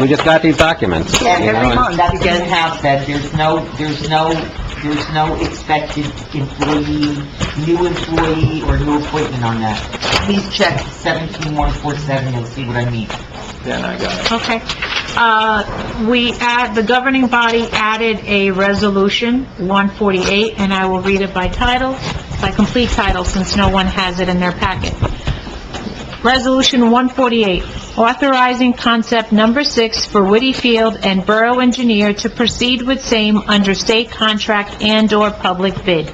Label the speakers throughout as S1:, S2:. S1: We just got these documents.
S2: Yeah,
S1: you know,
S2: every
S1: and-
S2: month, that does have that, there's no, there's no, there's no expected employee, new employee or new appointment on that. Please check seventeen one four seven, you'll see what I mean.
S3: Then I got it.
S4: Okay. Uh, We add, the governing body added a resolution, 148, and I will read it by title, by complete title, since no one has it in their packet. Resolution 148, authorizing concept number six for Whitty Field and Borough Engineer to proceed with same under state contract and/or public bid.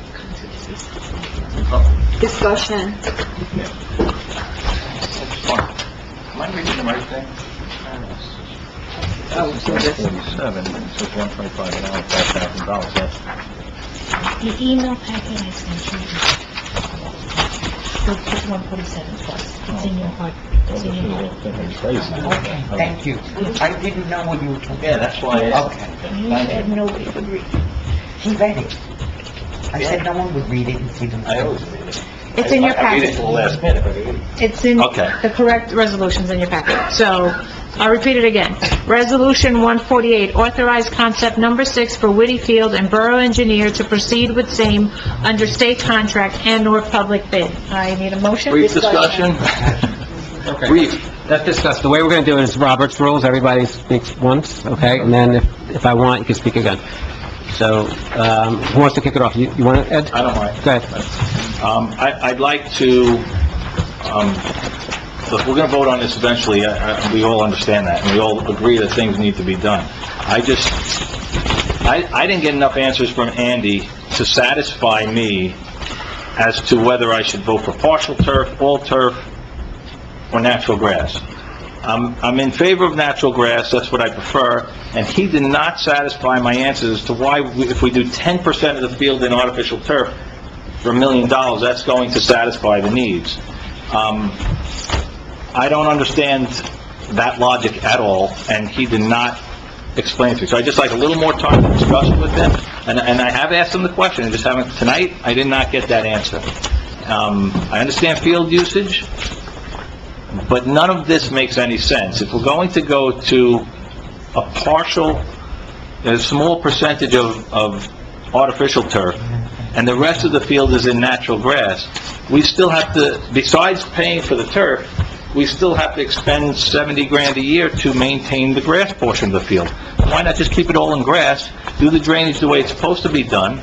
S5: Discussion.
S3: Am I reading the right thing?
S5: Oh, so this-
S3: Forty-seven, it says one twenty-five an hour, five thousand dollars, that's
S4: The email packet I sent you is 147 plus. It's in your heart. It's in your heart.
S2: Okay, thank you. I didn't know what you were talking
S3: Yeah,
S2: about.
S3: that's why I asked.
S2: Okay,
S4: You said nobody would read.
S2: he read it. I said no one would read it and see them.
S3: I always read it.
S4: It's in your
S3: I- I read it
S4: packet.
S3: till the last minute, but I read it.
S4: It's in,
S3: Okay.
S4: the correct resolution's in your packet. So, I'll repeat it again. Resolution 148, authorize concept number six for Whitty Field and Borough Engineer to proceed with same under state contract and/or public bid. I need a motion?
S3: Brief discussion? Brief.
S1: Let's discuss, the way we're gonna do it is Robert's rules, everybody speaks once, okay? And then if, if I want, you can speak again. So, um, who wants to kick it off? You, you want it, Ed?
S3: I don't mind.
S1: Go ahead.
S3: Um, I, I'd like to, um, look, we're gonna vote on this eventually, I, I, we all understand that, and we all agree that things need to be done. I just, I, I didn't get enough answers from Andy to satisfy me as to whether I should vote for partial turf, all turf, or natural grass. I'm, I'm in favor of natural grass, that's what I prefer, and he did not satisfy my answers as to why, we- if we do 10% of the field in artificial turf for a million dollars, that's going to satisfy the needs. Um, I don't understand that logic at all, and he did not explain it to me. So I'd just like a little more time to discuss it with him, and, and I have asked him the question, I just haven't, tonight, I did not get that answer. Um, I understand field usage, but none of this makes any sense. If we're going to go to a partial, a small percentage of, of artificial turf, and the rest of the field is in natural grass, we still have to, besides paying for the turf, we still have to expend 70 grand a year to maintain the grass portion of the field. Why not just keep it all in grass, do the drainage the way it's supposed to be done,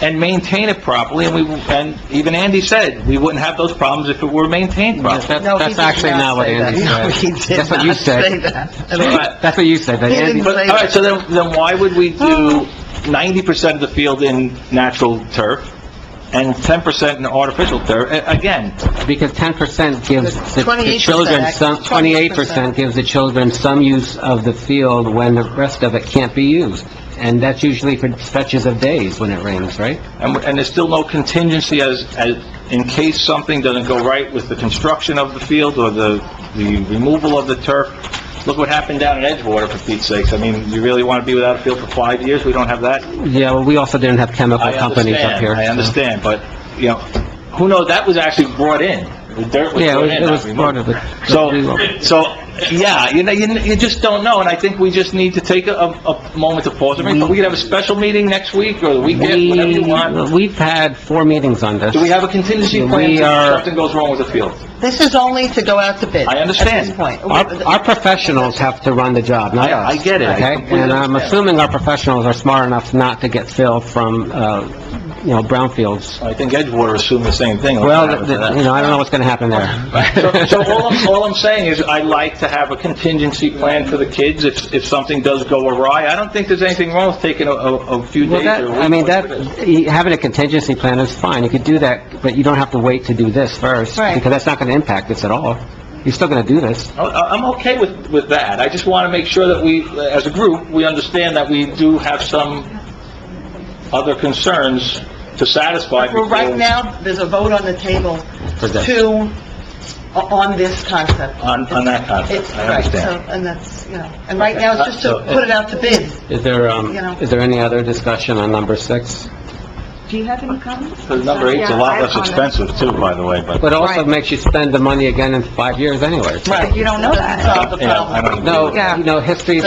S3: and maintain it properly, and we, and even Andy said, we wouldn't have those problems if it were maintained
S1: That's,
S3: properly.
S1: that's- that's actually not what Andy said. That's what you said.
S3: But-
S1: That's what you said, that Andy...
S3: But, all right, so then, then why would we do 90% of the field in natural turf and 10% in artificial turf? A- Again,
S1: Because 10% gives the- the
S5: 28%,
S1: children some, 28%
S5: 28%.
S1: gives the children some use of the field when the rest of it can't be used. And that's usually for stretches of days when it rains, right?
S3: and, and there's still no contingency as, as, in case something doesn't go right with the construction of the field or the, the removal of the turf. Look what happened down in Edgewater, for Pete's sakes. I mean, you really want to be without a field for five years? We don't have that?
S1: Yeah, well, we also didn't have chemical
S3: I
S1: companies up
S3: understand,
S1: here.
S3: I
S1: so-
S3: understand, but, you know, who knows, that was actually brought in. The dirt was
S1: Yeah,
S3: brought in,
S1: it
S3: not
S1: was
S3: removed.
S1: part of it.
S3: So, so, yeah, you know, you, you just don't know, and I think we just need to take a, a a moment to pause. I mean, we could have a special meeting next week or the weekend, whatever you want.
S1: We, we've had four meetings on this.
S3: Do we have a contingency plan
S1: We
S3: if
S1: are-
S3: something goes wrong with the field?
S2: This is only to go out to bid.
S3: I understand.
S2: At this point.
S1: Our, our professionals have to run the job, not
S3: I-
S1: us.
S3: I get it. I
S1: Okay?
S3: completely
S1: And I'm
S3: understand.
S1: assuming our professionals are smart enough not to get filled from, uh, you know, brownfields.
S3: I think Edgewater assumed the same thing.
S1: Well, th- th- you know, I don't know what's gonna happen
S3: So,
S1: there.
S3: so all I'm, all I'm saying is I like to have a contingency plan for the kids if, if something does go awry. I don't think there's anything wrong with taking a, a a few
S1: Well,
S3: days
S1: that,
S3: or a week.
S1: I mean, that, you- having a contingency plan is fine, you could do that, but you don't have to wait to do this first.
S2: Right.
S1: Because that's not gonna impact this at all. You're still gonna do this.
S3: I- I- I'm okay with, with that. I just want to make sure that we, as a group, we understand that we do have some other concerns to satisfy.
S2: Well, right
S3: before-
S2: now, there's a vote on the table
S1: For this.
S2: to, uh, on this concept.
S3: On, on that concept,
S2: It's,
S3: I
S2: right, so,
S3: understand. Uh,
S2: and that's, you know, and right now, it's just
S3: So,
S2: to
S3: it-
S2: put it out to bid.
S1: Is there, um,
S2: You know.
S1: is there any other discussion on number six?
S2: Do you have any comments?
S3: Because number eight's a lot less expensive too, by the way, but...
S2: uh,
S1: But also makes you spend the money again in five years anyway.
S2: You don't know that.
S3: Yeah, I don't agree with
S1: No,
S3: that.
S1: you know, history